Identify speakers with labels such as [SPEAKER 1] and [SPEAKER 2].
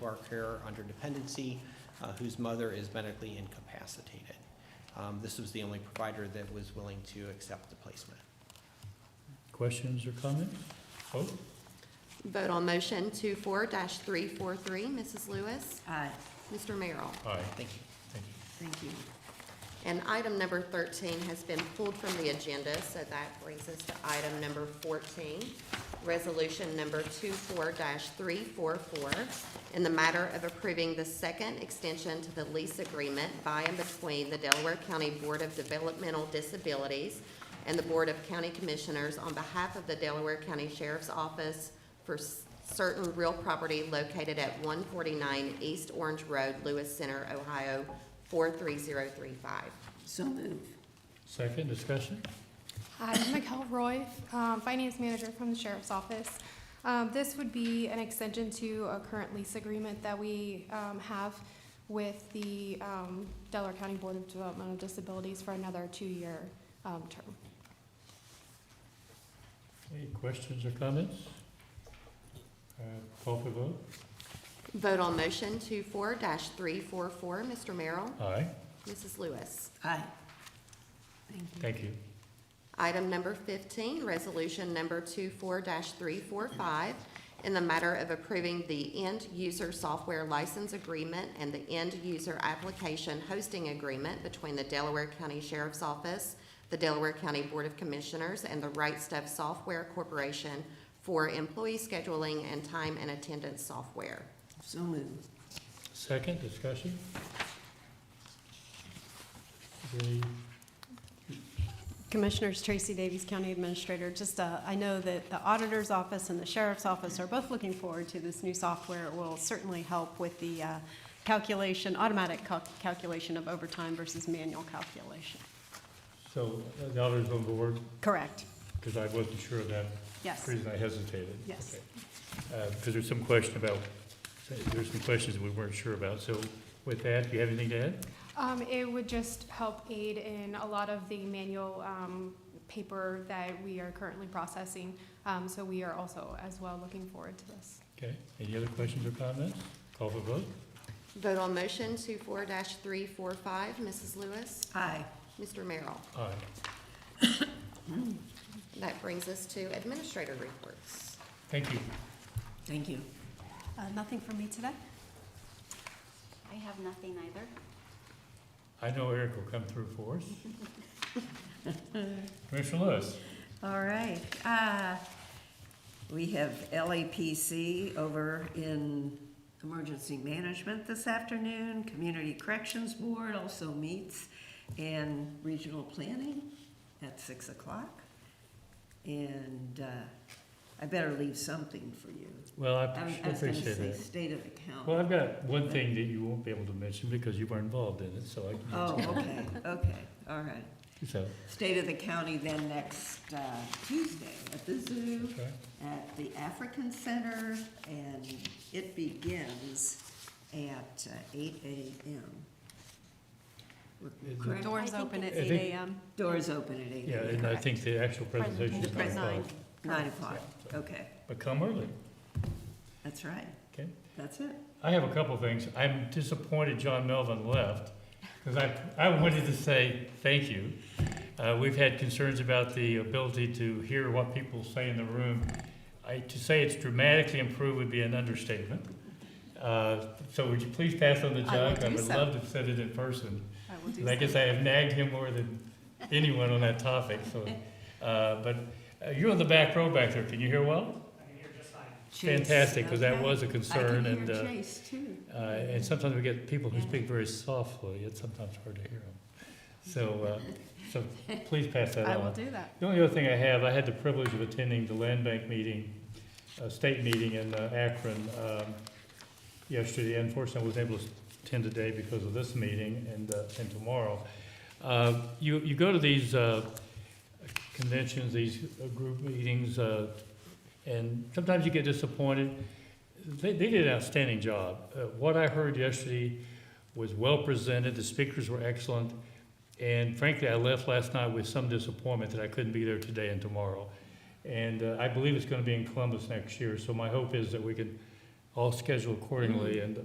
[SPEAKER 1] our care under dependency, uh, whose mother is medically incapacitated. Um, This was the only provider that was willing to accept the placement.
[SPEAKER 2] Questions or comments? Oh, Vote?
[SPEAKER 3] Vote on motion 24 three-four-three. Mrs. Lewis?
[SPEAKER 4] Aye,
[SPEAKER 3] Mr. Merrill?
[SPEAKER 2] Aye.
[SPEAKER 1] Thank you.
[SPEAKER 2] Thank you.
[SPEAKER 4] thank you.
[SPEAKER 3] And item number thirteen has been pulled from the agenda, so that brings us to item number fourteen, resolution number 24 three-four-four, in the matter of approving the second extension to the lease agreement by and between the Delaware County Board of Developmental Disabilities and the Board of County Commissioners on behalf of the Delaware County Sheriff's Office for s- certain real property located at one forty-nine East Orange Road, Lewis Center, Ohio, four three zero three five.
[SPEAKER 4] So move.
[SPEAKER 2] Second discussion?
[SPEAKER 5] Hi, I'm Mikel Roy, um, Finance Manager from the Sheriff's Office. Um, This would be an extension to a current lease agreement that we um, have with the um, Delaware County Board of Developmental Disabilities for another two-year um, term.
[SPEAKER 2] Any questions or comments? Uh, Call for vote?
[SPEAKER 3] Vote on motion 24 three four four, Mr. Merrill,
[SPEAKER 2] Aye.
[SPEAKER 3] Mrs. Lewis.
[SPEAKER 4] Aye. Thank you.
[SPEAKER 2] Thank you.
[SPEAKER 3] Item number fifteen, resolution number 24 three four five, in the matter of approving the end-user software license agreement and the end-user application hosting agreement between the Delaware County Sheriff's Office, the Delaware County Board of Commissioners, and the Right Stuff Software Corporation for employee scheduling and time and attendance software.
[SPEAKER 4] So move.
[SPEAKER 2] Second discussion? Is there any-
[SPEAKER 6] Commissioners Tracy Davies, County Administrator, just, uh, I know that the Auditor's Office and the Sheriff's Office are both looking forward to this new software. It will certainly help with the uh, calculation, automatic cal- calculation of overtime versus manual calculation.
[SPEAKER 2] So uh, the auditor's on board,
[SPEAKER 6] Correct,
[SPEAKER 2] because I wasn't sure of that.
[SPEAKER 6] yes.
[SPEAKER 2] The Reason I hesitated.
[SPEAKER 6] Yes.
[SPEAKER 2] Because there's some question about, there's some questions we weren't sure about. So with that, do you have anything to add?
[SPEAKER 5] Um, It would just help aid in a lot of the manual um, paper that we are currently processing. Um, So we are also as well looking forward to this.
[SPEAKER 2] Okay, any other questions or comments? Call for vote?
[SPEAKER 3] Vote on motion 24 three four five, Mrs. Lewis,
[SPEAKER 4] Aye.
[SPEAKER 3] Mr. Merrill.
[SPEAKER 2] Aye.
[SPEAKER 3] That brings us to administrator reports.
[SPEAKER 2] Thank you.
[SPEAKER 4] Thank you.
[SPEAKER 6] Uh, Nothing for me today?
[SPEAKER 7] I have nothing either.
[SPEAKER 2] I know Eric will come through for us. Commissioner Lewis?
[SPEAKER 4] All right. Uh, We have LAPC over in Emergency Management this afternoon. Community Corrections Board also meets and Regional Planning at 6 o'clock. And uh, I better leave something for you.
[SPEAKER 2] Well, I
[SPEAKER 4] I was
[SPEAKER 2] appre-
[SPEAKER 4] I was gonna
[SPEAKER 2] appreciate
[SPEAKER 4] say
[SPEAKER 2] that.
[SPEAKER 4] state of the
[SPEAKER 2] Well,
[SPEAKER 4] county.
[SPEAKER 2] I've got one thing that you won't be able to mention because you were involved in it, so I can.
[SPEAKER 4] Oh, okay, okay, all right.
[SPEAKER 2] So,
[SPEAKER 4] State of the county then next uh, Tuesday at the zoo,
[SPEAKER 2] okay.
[SPEAKER 4] at the African Center, and it begins at uh, eight AM.
[SPEAKER 2] Is it-
[SPEAKER 4] Correct.
[SPEAKER 6] Doors
[SPEAKER 7] I think
[SPEAKER 6] open at
[SPEAKER 2] it's- I
[SPEAKER 6] eight
[SPEAKER 2] think-
[SPEAKER 6] AM.
[SPEAKER 4] Doors open at eight.
[SPEAKER 2] Yeah, and I think the actual presentation is
[SPEAKER 6] Presentation
[SPEAKER 2] nine
[SPEAKER 6] is
[SPEAKER 2] o'clock.
[SPEAKER 4] Nine o'clock,
[SPEAKER 2] Yeah, so-
[SPEAKER 4] okay,
[SPEAKER 2] But come early,
[SPEAKER 4] that's right,
[SPEAKER 2] okay?
[SPEAKER 4] that's it.
[SPEAKER 2] I have a couple things. I'm disappointed John Melvin left, because I, I wanted to say thank you. Uh, we've had concerns about the ability to hear what people say in the room. I, to say it's dramatically improved would be an understatement. Uh, so would you please pass on the
[SPEAKER 6] I will
[SPEAKER 2] jug? I
[SPEAKER 6] do
[SPEAKER 2] would
[SPEAKER 6] so.
[SPEAKER 2] love to have said it in person.
[SPEAKER 6] I will do
[SPEAKER 2] And I guess
[SPEAKER 6] so.
[SPEAKER 2] I have nagged him more than anyone on that topic, so, uh, but uh, you're on the back row back there. Can you hear well?
[SPEAKER 4] Chase,
[SPEAKER 2] Fantastic, because that
[SPEAKER 4] okay.
[SPEAKER 2] was a concern
[SPEAKER 4] I
[SPEAKER 2] and,
[SPEAKER 4] can
[SPEAKER 2] uh,
[SPEAKER 4] hear Chase too.
[SPEAKER 2] uh, and sometimes we get people who speak very softly, it's sometimes hard to hear them. So, uh, so please pass that
[SPEAKER 6] I will
[SPEAKER 2] on.
[SPEAKER 6] do that.
[SPEAKER 2] The only other thing I have, I had the privilege of attending the land bank meeting, uh, state meeting in uh, Akron, um, yesterday. Unfortunately, I wasn't able to attend today because of this meeting and, uh, and tomorrow. Uh, you, you go to these, uh, conventions, these uh, group meetings, uh, and sometimes you get disappointed. They, they did an outstanding job. Uh, what I heard yesterday was well presented, the speakers were excellent, and frankly, I left last night with some disappointment that I couldn't be there today and tomorrow. And uh, I believe it's gonna be in Columbus next year, so my hope is that we can all schedule accordingly and